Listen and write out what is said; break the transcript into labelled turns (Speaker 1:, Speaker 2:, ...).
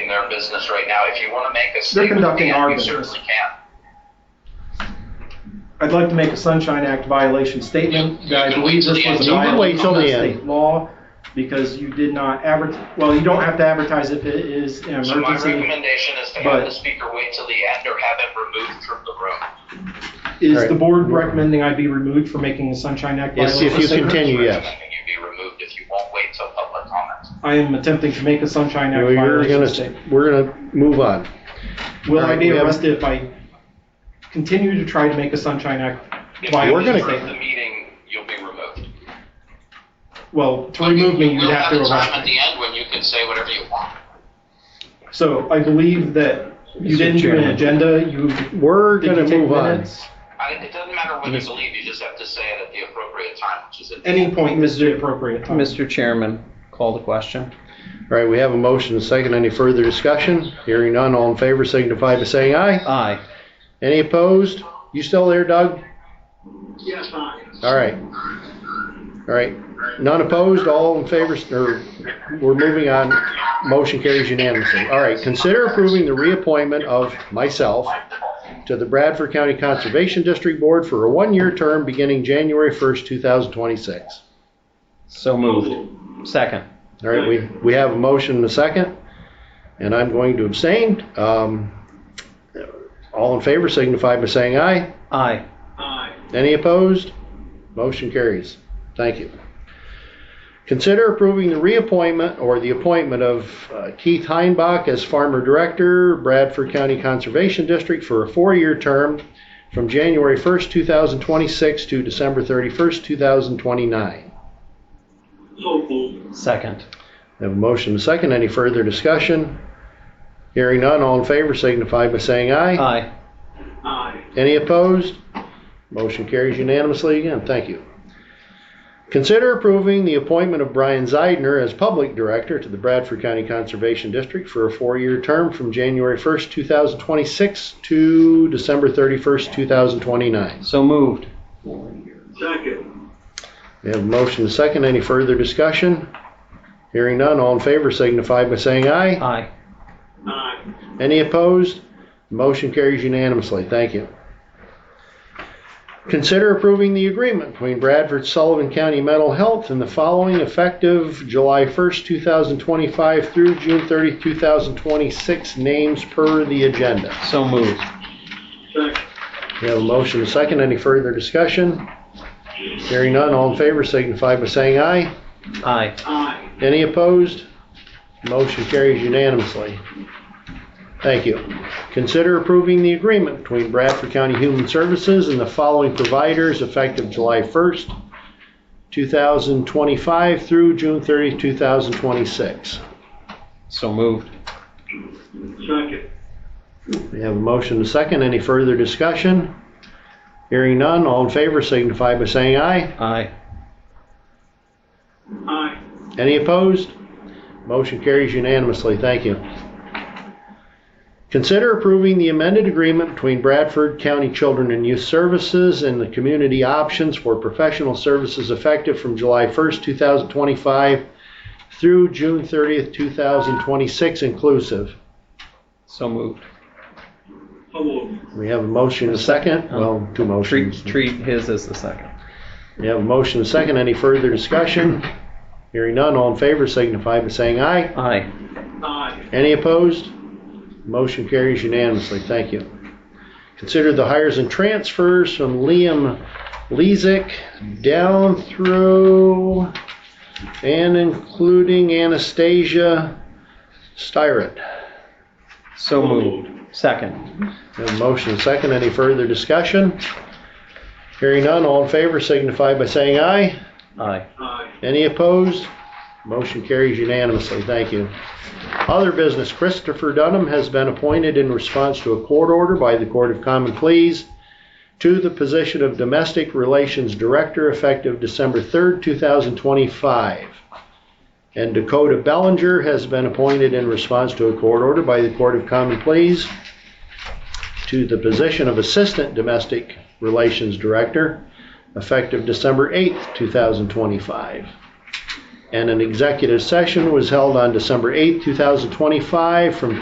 Speaker 1: conducting their business right now. If you want to make a
Speaker 2: They're
Speaker 1: statement,
Speaker 2: conducting
Speaker 1: Dan,
Speaker 2: our
Speaker 1: we
Speaker 2: business.
Speaker 1: certainly can.
Speaker 2: I'd like to make a Sunshine Act violation statement that I believe this was a
Speaker 1: You
Speaker 3: can wait
Speaker 2: violation
Speaker 3: till
Speaker 2: of
Speaker 3: the end.
Speaker 2: state law because you did not advertise, well, you don't have to advertise if it is an
Speaker 1: So my
Speaker 2: emergency.
Speaker 1: recommendation is to
Speaker 2: but-
Speaker 1: have the speaker wait till the end or have him removed from the room.
Speaker 2: Is the board recommending I be removed for making a Sunshine Act
Speaker 3: Yes,
Speaker 2: violation?
Speaker 3: if you
Speaker 2: statement?
Speaker 3: continue, yes.
Speaker 1: Recommending you be removed if you won't wait till public comment.
Speaker 2: I am attempting to make a Sunshine Act
Speaker 3: We're
Speaker 2: violation
Speaker 3: gonna,
Speaker 2: statement.
Speaker 3: we're gonna move on.
Speaker 2: Will I
Speaker 3: Alright,
Speaker 2: be
Speaker 3: we have-
Speaker 2: arrested if I continue to try to make a Sunshine Act
Speaker 1: If you
Speaker 2: violation
Speaker 1: leave
Speaker 2: statement?
Speaker 1: the meeting, you'll be removed.
Speaker 2: Well, to remove me, you'd have to
Speaker 1: We'll have a
Speaker 2: arrest
Speaker 1: time at
Speaker 2: me.
Speaker 1: the end when you can say whatever you want.
Speaker 2: So I believe that you didn't
Speaker 3: Mr.
Speaker 2: do an
Speaker 3: Chairman.
Speaker 2: agenda, you,
Speaker 3: We're
Speaker 2: did you
Speaker 3: gonna
Speaker 2: take
Speaker 3: move on.
Speaker 2: minutes?
Speaker 1: I, it doesn't matter
Speaker 2: Mm-hmm.
Speaker 1: when you leave, you just have to say it at the appropriate time, which is at the
Speaker 2: Any point is the appropriate time.
Speaker 4: Mr. Chairman, call the question.
Speaker 3: All right, we have a motion and a second. Any further discussion? Hearing none, all in favor signify by saying aye.
Speaker 4: Aye.
Speaker 3: Any opposed? You still there, Doug?
Speaker 5: Yes, I.
Speaker 3: All right. All right, none opposed, all in favor, or, we're moving on. Motion carries unanimously. All right, consider approving the reappointment of myself to the Bradford County Conservation District Board for a one-year term beginning January 1st, 2026.
Speaker 4: So moved. Second.
Speaker 3: All right, we, we have a motion and a second, and I'm going to abstain. Um, All in favor signify by saying aye.
Speaker 4: Aye.
Speaker 5: Aye.
Speaker 3: Any opposed? Motion carries. Thank you. Consider approving the reappointment or the appointment of uh, Keith Heinbach as Farmer Director, Bradford County Conservation District for a four-year term from January 1st, 2026 to December 31st, 2029.
Speaker 5: So moved.
Speaker 4: Second.
Speaker 3: I Have a motion and a second. Any further discussion? Hearing none, all in favor signify by saying aye.
Speaker 4: Aye.
Speaker 5: Aye.
Speaker 3: Any opposed? Motion carries unanimously again. Thank you. Consider approving the appointment of Brian Zeidner as Public Director to the Bradford County Conservation District for a four-year term from January 1st, 2026 to December 31st, 2029.
Speaker 4: So moved.
Speaker 5: Second.
Speaker 3: We have a motion and a second. Any further discussion? Hearing none, all in favor signify by saying aye.
Speaker 4: Aye.
Speaker 5: Aye.
Speaker 3: Any opposed? Motion carries unanimously. Thank you. Consider approving the agreement between Bradford Sullivan County Mental Health and the following effective July 1st, 2025 through June 30th, 2026, names per the agenda.
Speaker 4: So moved.
Speaker 5: Second.
Speaker 3: We have a motion and a second. Any further discussion? Hearing none, all in favor signify by saying aye.
Speaker 4: Aye.
Speaker 5: Aye.
Speaker 3: Any opposed? Motion carries unanimously. Thank you. Consider approving the agreement between Bradford County Human Services and the following providers effective July 1st, 2025 through June 30th, 2026.
Speaker 4: So moved.
Speaker 5: Second.
Speaker 3: We have a motion and a second. Any further discussion? Hearing none, all in favor signify by saying aye.
Speaker 4: Aye.
Speaker 5: Aye.
Speaker 3: Any opposed? Motion carries unanimously. Thank you. Consider approving the amended agreement between Bradford County Children and Youth Services and the Community Options for Professional Services effective from July 1st, 2025 through June 30th, 2026 inclusive.
Speaker 4: So moved.
Speaker 5: So moved.
Speaker 3: We have a motion and a second. Well, two
Speaker 4: Oh. Treat,
Speaker 3: motions.
Speaker 4: treat his as the second.
Speaker 3: We have a motion and a second. Any further discussion? Hearing none, all in favor signify by saying aye.
Speaker 4: Aye.
Speaker 5: Aye.
Speaker 3: Any opposed? Motion carries unanimously. Thank you. Consider the hires and transfers from Liam Lezick down through and including Anastasia Styrett.
Speaker 4: So moved. Second.
Speaker 3: Have a motion and second. Any further discussion? Hearing none, all in favor signify by saying aye.
Speaker 4: Aye.
Speaker 5: Aye.
Speaker 3: Any opposed? Motion carries unanimously. Thank you. Other business, Christopher Dunham has been appointed in response to a court order by the Court of Common Pleas to the position of Domestic Relations Director effective December 3rd, 2025. And Dakota Bellinger has been appointed in response to a court order by the Court of Common Pleas to the position of Assistant Domestic Relations Director effective December 8th, 2025. And an executive session was held on December 8th, 2025, from